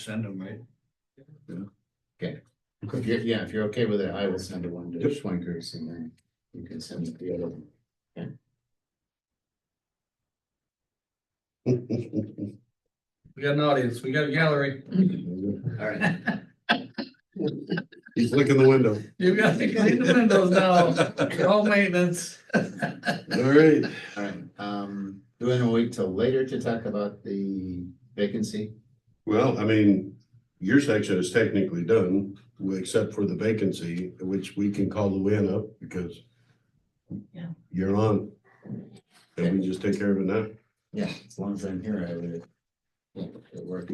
send them, right? If you're, yeah, if you're okay with it, I will send it one to Schwenkers and then you can send it the other one. We got an audience, we got a gallery. All right, He's licking the window. You got to clean the windows now, all maintenance. All right. all right, um, do we want to wait till later to talk about the vacancy? Well, I mean, your section is technically done, except for the vacancy, which we can call Luann up because Yeah. you're on. And we just take care of it now. Yeah, as long as I'm here, I would. Yeah, it worked.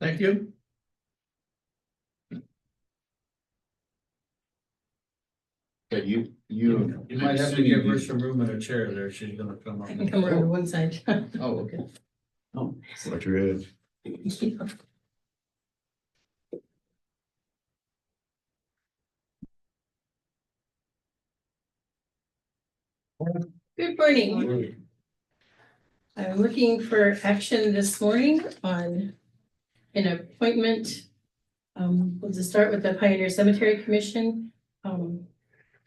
Thank you. But you, you. You might have to give her some room in her chair there, she's gonna come I can come around up. to one side. Oh, okay. Oh, Watch your head. Good morning. I'm looking for action this morning on an appointment. Um, we'll just start with the Pioneer Cemetery Commission, um,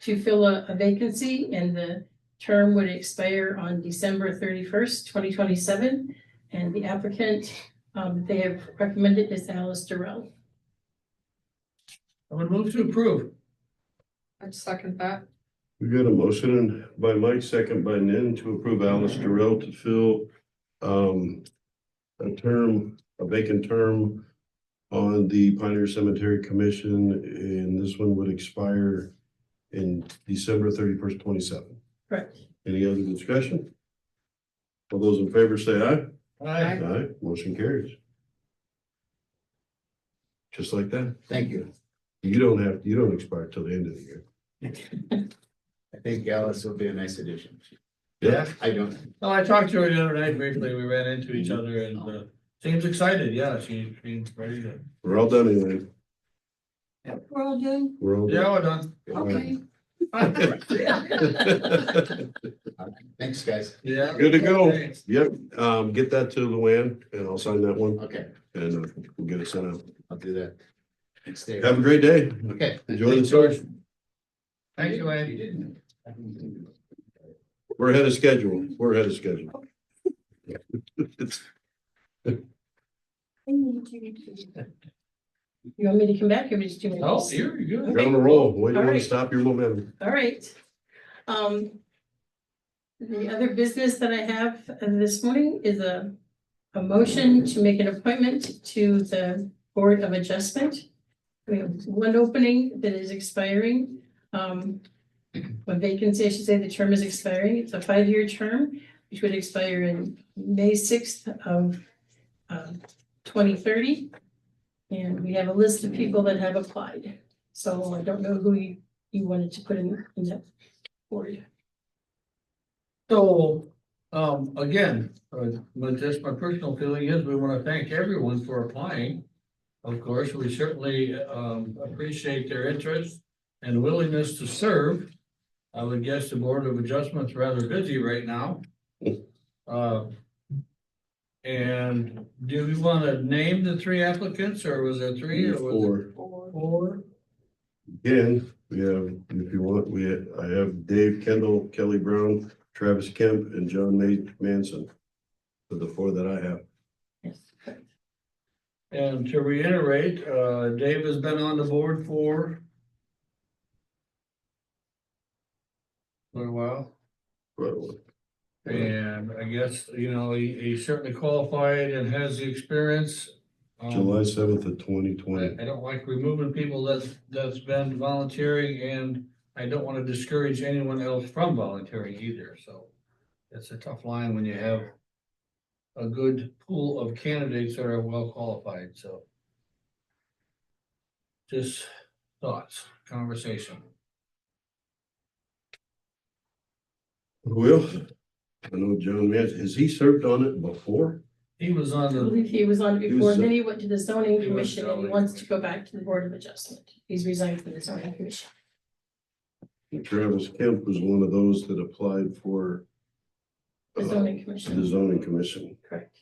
to fill a a vacancy and the term would expire on December thirty-first, twenty twenty-seven. And the applicant, um, they have recommended is Alice Durrell. I would move to approve. I'd second that. We got a motion by Mike, second by Nin to approve Alice Durrell to fill um a term, a vacant term on the Pioneer Cemetery Commission, and this one would expire in December thirty-first, twenty-seven. Correct. Any other discussion? All those in favor say aye. Aye. Aye, motion carries. Just like that. thank you. You don't have, you don't expire till the end of the year. I think Alice will be a nice addition. Yeah. I don't, Well, Oh, I talked to her the other night briefly, we ran into each other and, uh, seems excited, yeah, she, she's ready to. We're all done anyway. We're all doing We're all. done. Yeah, we're done. okay. thanks, guys. Yeah. Good to go. Thanks. Yep, um, get that to Luann and I'll sign that one Okay, and uh, we'll get it sent out. I'll do that. Thanks, Dave. Have a great day. Okay. Enjoy the storage. Thank you, Andy. You didn't. I didn't. We're ahead of schedule. We're ahead of schedule. It's- You want me to come back or just do minutes? Oh, here, you go. You're on a roll. Why do you want Alright. to stop your momentum? All right. Um. The other business that I have this morning is a, a motion to make an appointment to the Board of Adjustment. We have one opening that is expiring, um. A vacancy, I should say, the term is expiring, it's a five-year term, which would expire in May sixth of, um, twenty thirty. And we have a list of people that have applied, so I don't know who you you wanted to put in, in that for you. So, um, again, uh, but just my personal feeling is we want to thank everyone for applying. Of course, we certainly, um, appreciate their interest and willingness to serve. I would guess the Board of Adjustment's rather busy right now. Uh, And do we want to name the three applicants or was there three or was Four. it four? Again, we have, if you want, we, I have Dave Kendall, Kelly Brown, Travis Kemp and John Ma- Manson. For the four that I have. Yes. And to reiterate, uh, Dave has been on the board for for a while. Well, And I guess, you know, he, he certainly qualified and has the experience. Um, July seventh of twenty I, twenty. I don't like removing people that's, that's been volunteering and I don't want to discourage anyone else from volunteering either, so. It's a tough line when you have a good pool of candidates that are well qualified, so. Just thoughts, conversation. Well, I know John Manson, has he served on it before? He was I on the, believe he was on He before, was, uh, then he went to the zoning He was commission and he zoning. wants to go back to the board of adjustment. He's resigned from the zoning commission. Travis Kemp was one of those that applied for. The uh, zoning The commission, zoning commission. correct.